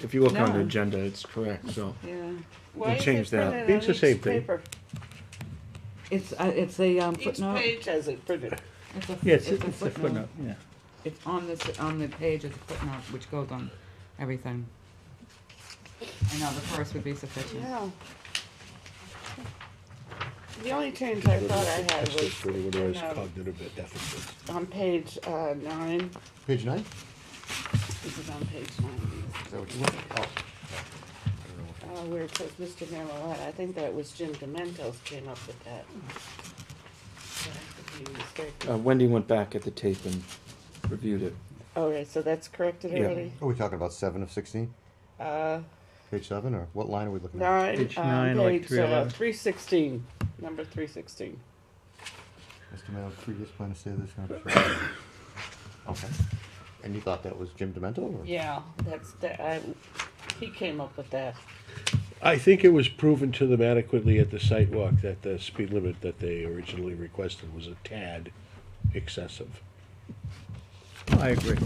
If you look on the No. agenda, it's correct, so. Yeah, Why is change it that. printed It's on the each same thing. paper? it's, uh, it's a um, Each footnote. page has it printed. It's a- Yes, it's it's a footnote, yeah. It's on this, on the page as a footnote, which goes on everything. I know, the first would be sufficient. Yeah. The only change I thought I had That's was really what it is, um, cognitive deficit. on page uh, nine, Page nine? this is on page nine, Is that what you want? Oh. uh, where it says Mr. Marmalade, I think that was Jim Dementos came up with that. So I could be mistaken. Uh, Wendy went back at the tape and reviewed it. All right, so that's corrected Yeah. already? Are we talking about seven of sixteen? Uh, Page seven, or what line are we looking at? Nine, Page um, nine, like page, uh, 311. three sixteen, number three sixteen. Mr. Mayo, previous plan to say this, and I'm sure. Okay. And you thought that was Jim Demento, or? Yeah, that's, that, I, he came up with that. I think it was proven to them adequately at the site walk that the speed limit that they originally requested was a tad excessive. Oh, I agree.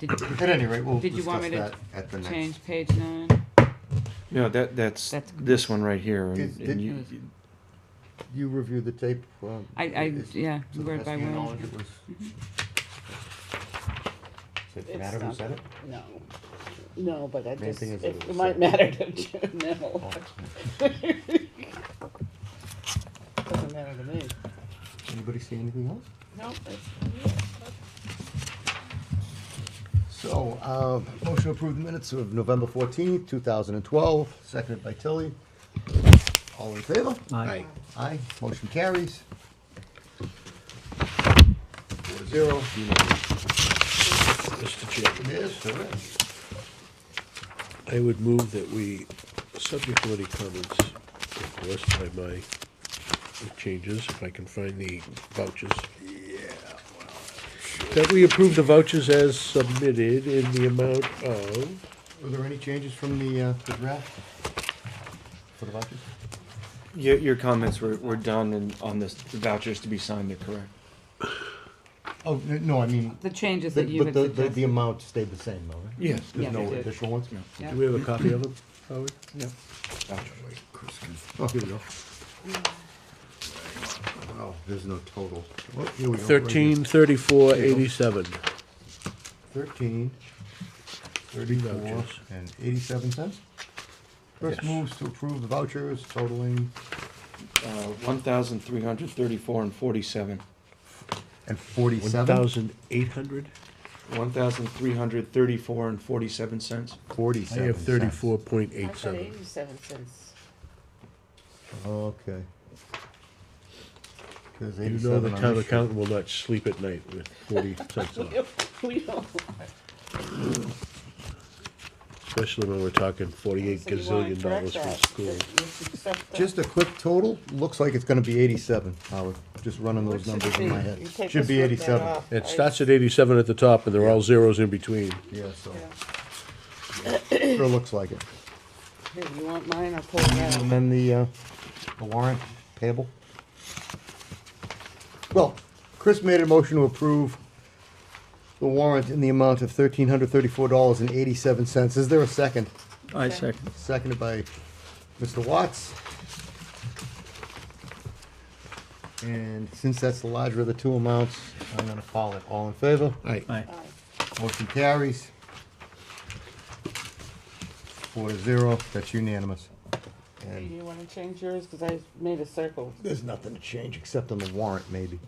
Did, At any rate, we'll did you discuss want me to that at the next. change page nine? No, that, that's That's- this one right here. and- Did- and did- you- You reviewed the tape? um, I, I, is- yeah, to the word best by of your word. Mm-hmm. knowledge, it was- Does it It's matter who not- said it? No, no, but I Main just, thing it is that it it was might said. matter to Jim, no. Oh. Doesn't matter to me. Anybody see anything else? No, that's, So, um, motion to approve the minutes of November fourteenth, two thousand and twelve, seconded by Tilly. All in favor? Aye. Aye, motion carries. Four to zero. unanimous. Mr. Chairman, It is, there is. I would move that we, subject to any comments, of course, by my changes, if I can find the vouchers. Yeah. That we approve the vouchers as submitted in the amount of, Were there any changes from the, uh, the draft? For the vouchers? Your, your comments were, were done and on this, the vouchers to be signed, they're correct. Oh, n- no, I mean, The changes the- that you but had the, the, the suggested. amount stayed the same though, right? Yes. Yeah, There's no they did. additional ones? Yeah. do we have a copy of them, Howard? Oh, here we go. Oh, there's no total. Oh, here we go, right here. Thirteen thirty-four eighty-seven. Thirteen, thirty-four, Vouchers. and eighty-seven cents. First Yes. moves to approve the vouchers totaling, Uh, one thousand three hundred thirty-four and forty-seven. and One forty-seven? thousand eight hundred? One thousand three hundred thirty-four and forty-seven cents. I Forty-seven have thirty-four point I eight thought seven. eighty-seven cents. cents. Okay. Cause You know the eighty-seven on town this sheet. accountant will not sleep at night with forty cents We off, don't- We don't, especially when we're talking forty-eight so you wanna gazillion correct dollars for that. school. that you accept the- Just a quick total, looks like it's gonna be eighty-seven, Howard, just running What those should it numbers in be? my You head. take Should us be with that eighty-seven, off. It I- starts at eighty-seven at the top and they're all zeros in between. yeah, so, yeah. sure looks like it. Here, you want mine, I'll pull it out. And then the, uh, the warrant payable. Well, Chris made a motion to approve the warrant in the amount of thirteen hundred thirty-four dollars and eighty-seven cents. Is there a second? I second. Seconded by Mr. Watts. And since that's the larger of the two amounts, I'm gonna call it. All in favor? Right. Aye. Motion carries. Four to zero. That's unanimous. Do And you wanna change yours, cause I made a circle. There's nothing to change except on the warrant, maybe.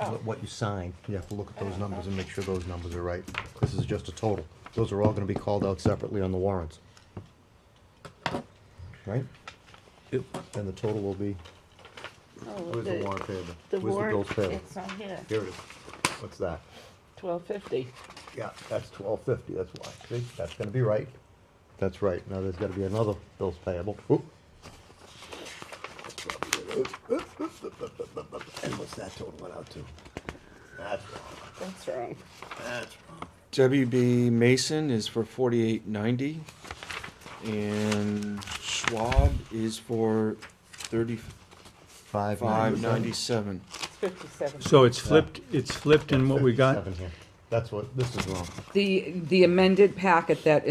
Oh. What- What you sign, you have to look at those numbers and make sure those numbers are right. This is just a total. Those are all gonna be called out separately on the warrants. Right? Yep. And the total will be, Oh, where's the warrant payable? The Where's the bills warrant, payable? it's on here, Here it is. What's that? twelve fifty. Yeah, that's twelve fifty, that's why. See, that's gonna be right. That's right. Now there's gotta be another bills payable. Oop. And what's that total went out to? That's wrong. That's wrong. That's wrong. WB Mason is for forty-eight ninety, and Schwab is for thirty-five Five ninety-seven. It's fifty-seven. So it's flipped, it's flipped in what we got? That's what, this is wrong. The, the amended packet that